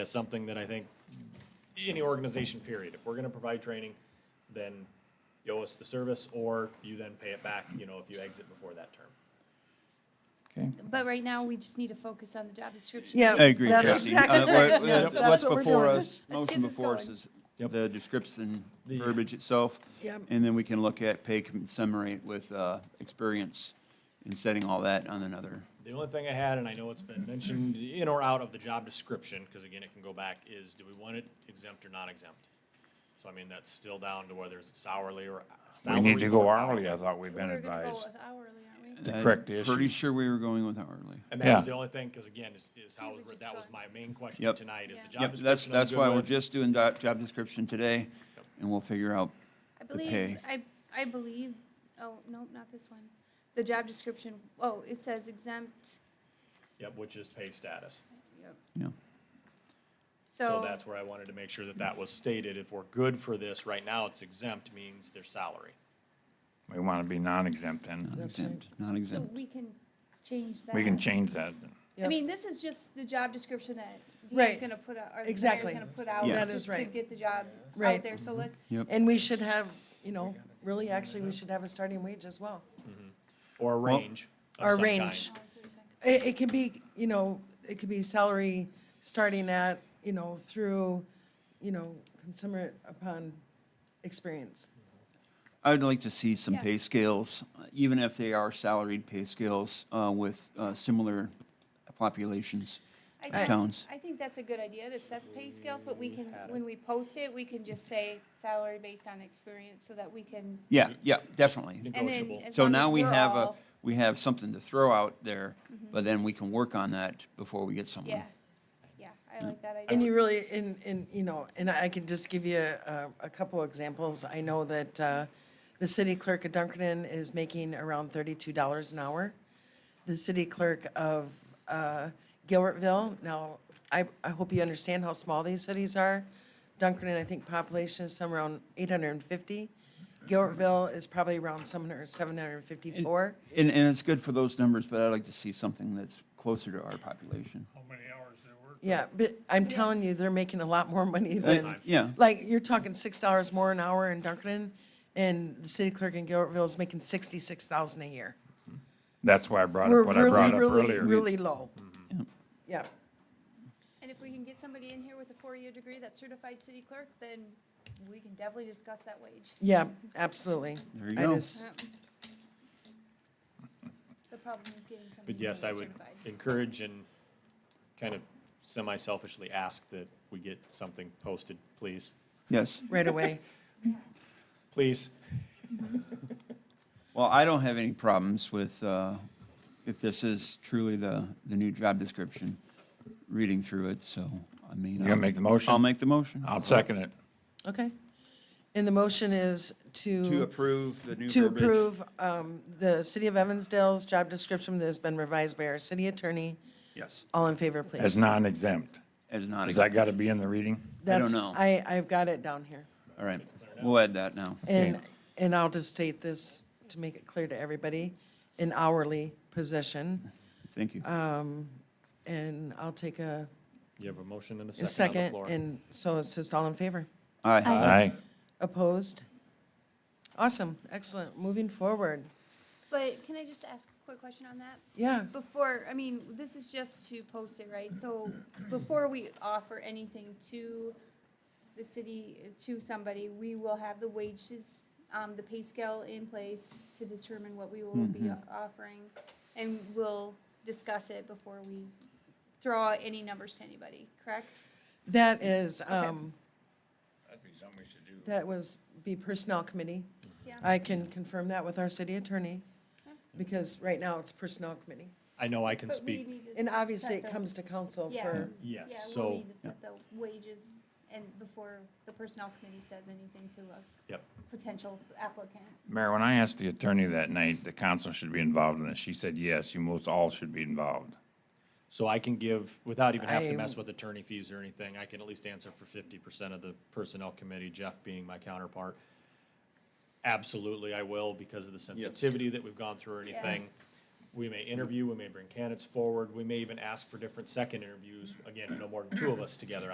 is something that I think any organization, period, if we're gonna provide training, then you owe us the service, or you then pay it back, you know, if you exit before that term. Okay. But right now, we just need to focus on the job description. Yeah. I agree, that's Jesse. exactly- Uh, what- that's- What's that's what we're before doing. us, Let's motion get this before us going. is Yep. the description, The- verbiage itself. Yep. And then we can look at pay summary with uh, experience and setting all that on another. The only thing I had, and I know it's been mentioned in or out of the job description, because again, it can go back, is do we want it exempt or not exempt? So I mean, that's still down to whether it's hourly or We salary. need to go or- hourly, I thought we've been We're gonna go advised. with hourly, aren't we? To I'm correct the Pretty issue. sure we were going with hourly. And that was Yeah. the only thing, because again, is, is how, it was was writ- just that was my going- main question Yep. tonight, is the job Yep, description. that's, I'm that's good why we're with. just doing do- job description today, Yep. and we'll figure out I the pay. believe, I, I believe, oh, no, not this one. The job description, oh, it says exempt, Yep, which is pay status. Yeah. So so, that's where I wanted to make sure that that was stated. If we're good for this, right now it's exempt means their salary. We want to be non-exempt and exempt, not so exempt. we can change that. we can change that. I Yep. mean, this is just the job description that Dean's Right. gonna put out, or the mayor's Exactly. gonna put out, Yeah. That is just to right. get the job out Right. there, so let's, And we should have, you know, really, actually, we should have a starting wage as well. Or a Well- range Or of some range. kind. It, it can be, you know, it could be salary starting at, you know, through, you know, consumer upon experience. I would like to see some Yeah. pay scales, uh, even if they are salaried pay scales uh, with uh, similar populations. I The think- towns. I think that's a good idea to set the pay scales, but we can, when we post it, we can just say salary based on experience so that we can. Yeah, yeah, definitely. and then Negotiable. as So long as now we we're have a, all- Mm-hmm. we have something to throw out there, but then we can work on that before we get someone. Yeah, yeah, I like that And idea. you really, and, and, you know, and I can just give you a, a couple examples. I know that, uh, the city clerk of Dunkerton is making around thirty-two dollars an hour. The city clerk of, uh, Gilbertville, now, I, I hope you understand how small these cities are. Dunkerton, I think population is somewhere around eight hundred and fifty. Gilbertville is probably around seven hundred, seven hundred and fifty-four. And, and it's good for those numbers, but I'd like to see something that's closer to our population. how many hours they work. Yeah, but I'm telling you, they're making a lot more money Uh, than. yeah. Like, you're talking six dollars more an hour in Dunkerton, and the city clerk in Gilbertville is making sixty-six thousand a year. That's why I brought We're up what I really, brought up really, earlier. really low. Mm-hmm. Yeah, And if we can get somebody in here with a four-year degree that's certified city clerk, then we can definitely discuss that wage. yeah, absolutely. There you I go. just- The problem is getting somebody But yes, I would certified. encourage and kind of semi-selfishly ask that we get something posted, please, Yes. Right away. please. Well, I don't have any problems with, uh, if this is truly the, the new job description, reading through it, so, I mean. You gonna make the motion? I'll make the motion. I'll second it. Okay. And the motion is To to, approve the new to verbiage. approve, um, the city of Evansdale's job description that has been revised by our city attorney. Yes, All in favor, please. As non-exempt. as not, Does that got to be in the reading? That's- know. I, I've got it down here. all right, we'll add that now. And, Okay. and I'll just state this to make it clear to everybody, an hourly position. Thank you. uh, And I'll take a You have a motion and a second on the a second, floor. and so it's just all in favor. Aye. Aye. Opposed? Awesome, excellent, moving forward. But can I just ask a quick question on that? Yeah, Before, I mean, this is just to post it, right? So before we offer anything to the city, to somebody, we will have the wages, um, the pay scale in place to determine what we will be Mm-hmm. offering. And we'll discuss it before we throw out any numbers to anybody, correct? that is, um, That'd be something we should do. that was, be Personnel Committee. Yeah. I can confirm that with our city attorney, because right now it's Personnel Committee. I know I can But we speak, need to And obviously, set it the- comes to council Yeah. for, yes, Yeah, so. we'll need to set the wages and before the personnel committee says anything to a Yep. potential applicant. Mayor, when I asked the attorney that night, the council should be involved in this, she said, yes, you most all should be involved. So I can give, without even having to I- mess with attorney fees or anything, I can at least answer for fifty percent of the personnel committee, Jeff being my counterpart. Absolutely, I will, because of the sensitivity that we've gone through or Yeah. anything. We may interview, we may bring candidates forward, we may even ask for different second interviews, again, no more than two of us together